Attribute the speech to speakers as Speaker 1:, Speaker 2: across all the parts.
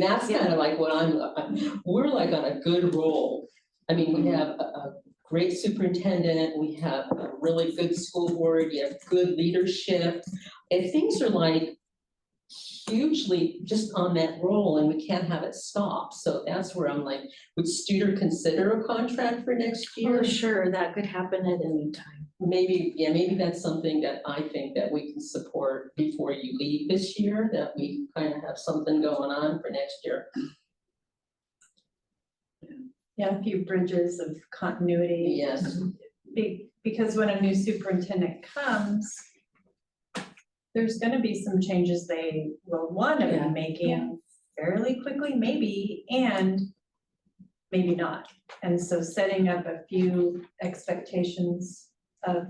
Speaker 1: That's
Speaker 2: Yeah.
Speaker 1: kind of like what I'm, I'm- we're like on a good roll. I mean, we have a, a great superintendent, we have a really good school board, you have good leadership. And things are like hugely just on that roll and we can't have it stop. So that's where I'm like, would Studer consider a contract for next year?
Speaker 2: Oh, sure, that could happen at any time.
Speaker 1: Maybe, yeah, maybe that's something that I think that we can support before you leave this year, that we kind of have something going on for next year.
Speaker 3: Yeah, a few bridges of continuity.
Speaker 1: Yes.
Speaker 3: Be- because when a new superintendent comes, there's gonna be some changes they will wanna
Speaker 1: Yeah.
Speaker 3: be making fairly quickly, maybe, and maybe not. And so setting up a few expectations of,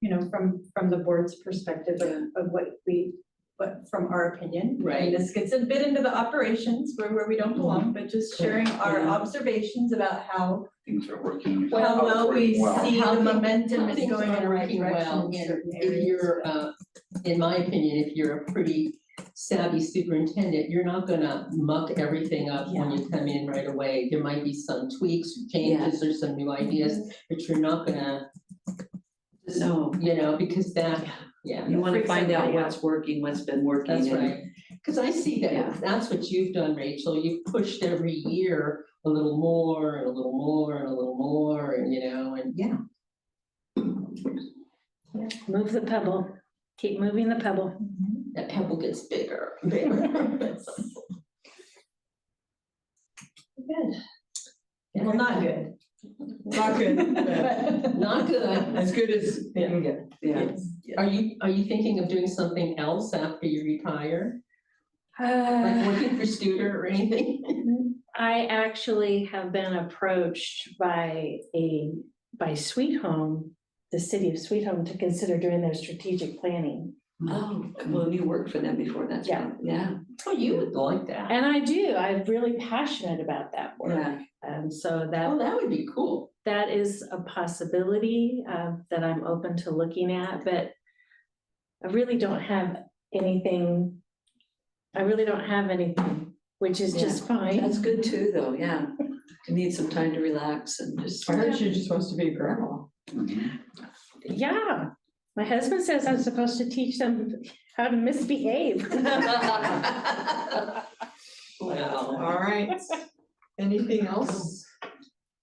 Speaker 3: you know, from, from the board's perspective of,
Speaker 1: Yeah.
Speaker 3: of what we, what, from our opinion. I mean,
Speaker 1: Right.
Speaker 3: This gets a bit into the operations where, where we don't belong, but just
Speaker 1: Correct.
Speaker 3: sharing our
Speaker 1: Yeah.
Speaker 3: observations about how,
Speaker 4: things are working.
Speaker 3: how well we
Speaker 4: Well,
Speaker 3: see
Speaker 1: How
Speaker 3: the
Speaker 1: thi-
Speaker 3: momentum is
Speaker 1: Things
Speaker 3: going in
Speaker 1: are
Speaker 3: the right
Speaker 1: working well,
Speaker 3: direction
Speaker 1: and
Speaker 3: in certain
Speaker 1: if
Speaker 3: areas.
Speaker 1: you're, uh, in my opinion, if you're a pretty savvy superintendent, you're not gonna muck everything up when you come in right away. There might be some tweaks, or changes, or some new ideas, but you're not gonna,
Speaker 5: No,
Speaker 1: you know, because that, yeah,
Speaker 5: you wanna
Speaker 3: Freaks
Speaker 5: find out
Speaker 3: everybody out.
Speaker 5: what's working, what's been working.
Speaker 1: that's
Speaker 5: and-
Speaker 1: right. Cause I see
Speaker 5: Yeah.
Speaker 1: that, that's what you've done, Rachel, you've pushed every year a little more, and a little more, and a little more, and you know, and yeah,
Speaker 2: Move the pebble, keep moving the pebble.
Speaker 1: that pebble gets bigger, bigger.
Speaker 3: Good. Well, not good. Not
Speaker 1: Not good.
Speaker 3: good as
Speaker 1: it can
Speaker 3: get.
Speaker 5: Yeah,
Speaker 1: Are you, are you thinking of doing something else after you retire? Like working for Studer or anything?
Speaker 2: I actually have been approached by a, by Sweet Home, the city of Sweet Home, to consider doing their strategic planning.
Speaker 5: oh, well, you worked for them before, that's
Speaker 2: Yeah.
Speaker 5: right, yeah,
Speaker 1: Oh, you would like that.
Speaker 2: And I do, I'm really passionate about that work.
Speaker 5: yeah,
Speaker 2: And so
Speaker 1: Oh,
Speaker 2: that,
Speaker 1: that would be cool.
Speaker 2: that is a possibility uh, that I'm open to looking at, but I really don't have anything, I really don't have anything, which is just fine.
Speaker 5: that's good too, though, yeah. You need some time to relax and just.
Speaker 6: I heard she just wants to be a grandma.
Speaker 4: mhm.
Speaker 2: Yeah, my husband says I'm supposed to teach them how to misbehave.
Speaker 1: Wow.
Speaker 6: All right, anything else?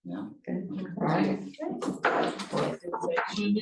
Speaker 4: No.
Speaker 6: All right.